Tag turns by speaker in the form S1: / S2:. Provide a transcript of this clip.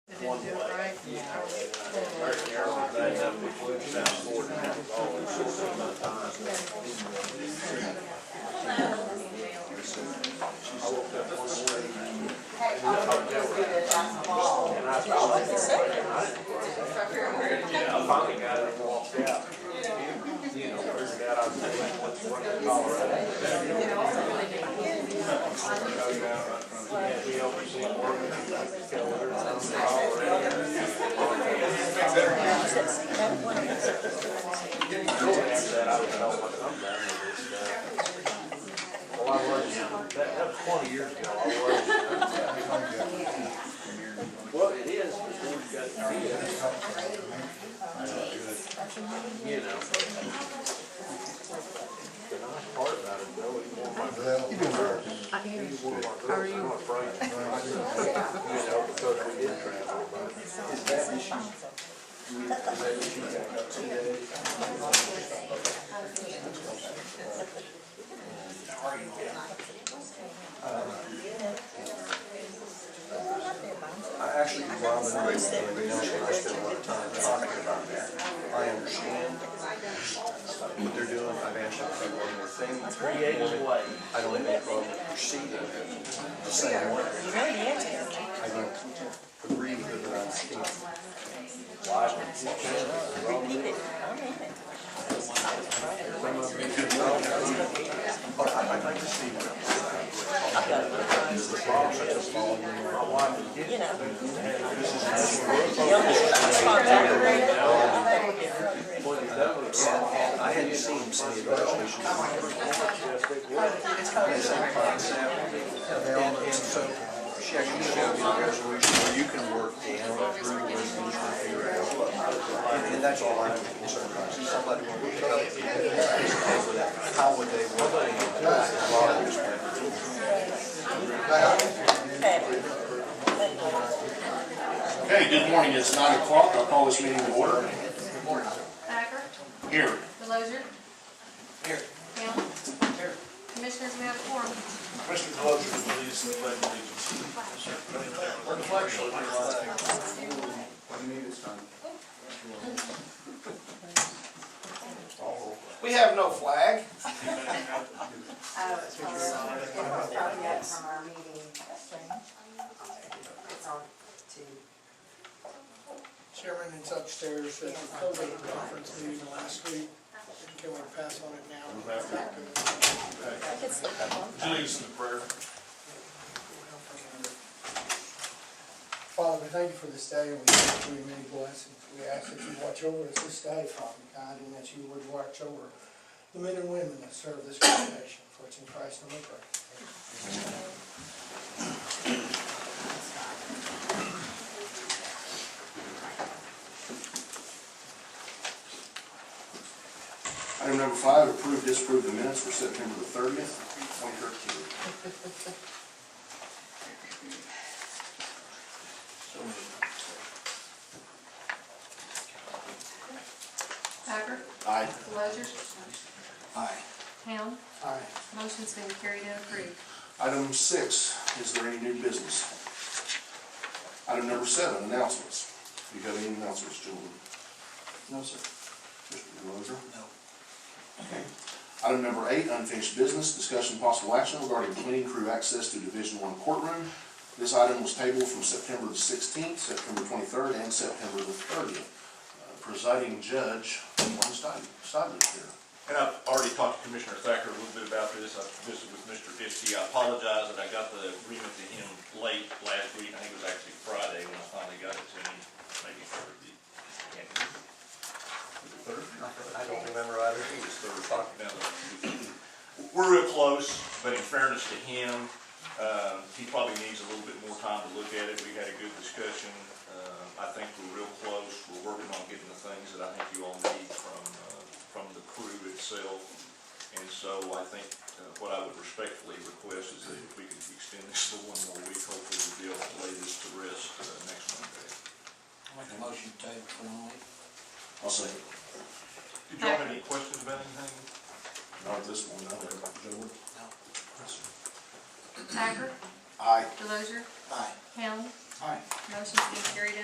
S1: one
S2: do it
S1: way.
S2: right.
S1: American Airlines, they have to put down four times, all in six or nine times. I woke up one morning and I thought, I didn't. Yeah, I finally got it and walked out. You know, figured out I was taking what's one in Colorado. We always see work, and I could tell her, I was in Colorado. After that, I was like, oh, I'm done with this stuff. Well, I was, that, that was twenty years ago, I was. Well, it is, but then you've got to be You know. The nice part about it, though, is one of my, one of my girls, I'm afraid. You know, because we did travel, but it's that issue. That issue got up to
S3: I actually, Rob and I, everybody knows that I spend a lot of time talking about that. I understand what they're doing, I've actually done one more thing.
S1: Creative way.
S3: I don't have any problem proceeding the same way. I don't agree with what I'm seeing. But I- I'd like to see what I hadn't seen some of the legislation. They say concept, and, and so, she actually showed me a resolution where you can work down through the resolution to figure out what. And, and that's all I'm concerned about, see somebody would pick up, this paper with that, how would they work? it? As long as it's-
S4: Okay, good morning, it's nine o'clock, I'll call this meeting to order.
S5: Thacker,
S4: Here,
S5: Delozer. Here. Hamel. Commissioners, we have four.
S4: Mr. Delozer, please, the pledge of allegiance.
S2: We have no flag.
S6: Oh, it's from, it was probably up from our meeting. It's on to,
S2: Chairman, it's upstairs at the COVID conference meeting last week. Can we pass on it now?
S4: Please, the prayer.
S7: Father, we thank you for this day, and we thank you for your many blessings. We ask that you watch over us this day, Father God, and that you would watch over the men and women that serve this congregation, for it's in Christ's name we pray.
S4: Item number five, approve, disapprove the minutes for September the thirtieth, twenty thirteen.
S5: Thacker,
S4: Aye.
S5: Delozer.
S4: Aye.
S5: Hamel.
S7: Aye.
S5: Motion's been carried and approved.
S4: Item six, is there any new business? Item number seven, announcements. Do you have any announcements, gentlemen?
S7: No, sir.
S4: Mr. Delozer? No. Item number eight, unfinished business, discussion possible action regarding cleaning crew access to Division One courtroom. This item was tabled from September the sixteenth, September twenty-third, and September the thirtieth. Uh, Presiding Judge Warren Stidley is here.
S8: And I've already talked to Commissioner Thacker a little bit about this, I visited with Mr. Diskey, I apologize that I got the agreement to him late last week, I think it was actually Friday when I finally got it to him, maybe Thursday. Can't remember. Was it Thursday?
S3: I don't remember either.
S8: I think it's third talking down the- We're real close, but in fairness to him, um, he probably needs a little bit more time to look at it. We had a good discussion. Um, I think we're real close. We're working on getting the things that I think you all need from, uh, from the crew itself. And so I think uh, what I would respectfully request is that if we could extend this to one more week, hopefully we'll be able to lay this to rest uh, next Monday.
S4: I'll second.
S8: Did you have any questions about anything?
S4: Not this one, no. Gentlemen?
S5: Thacker,
S4: Aye.
S5: Delozer.
S7: Aye.
S5: Hamel.
S7: Aye.
S5: Motion's been carried and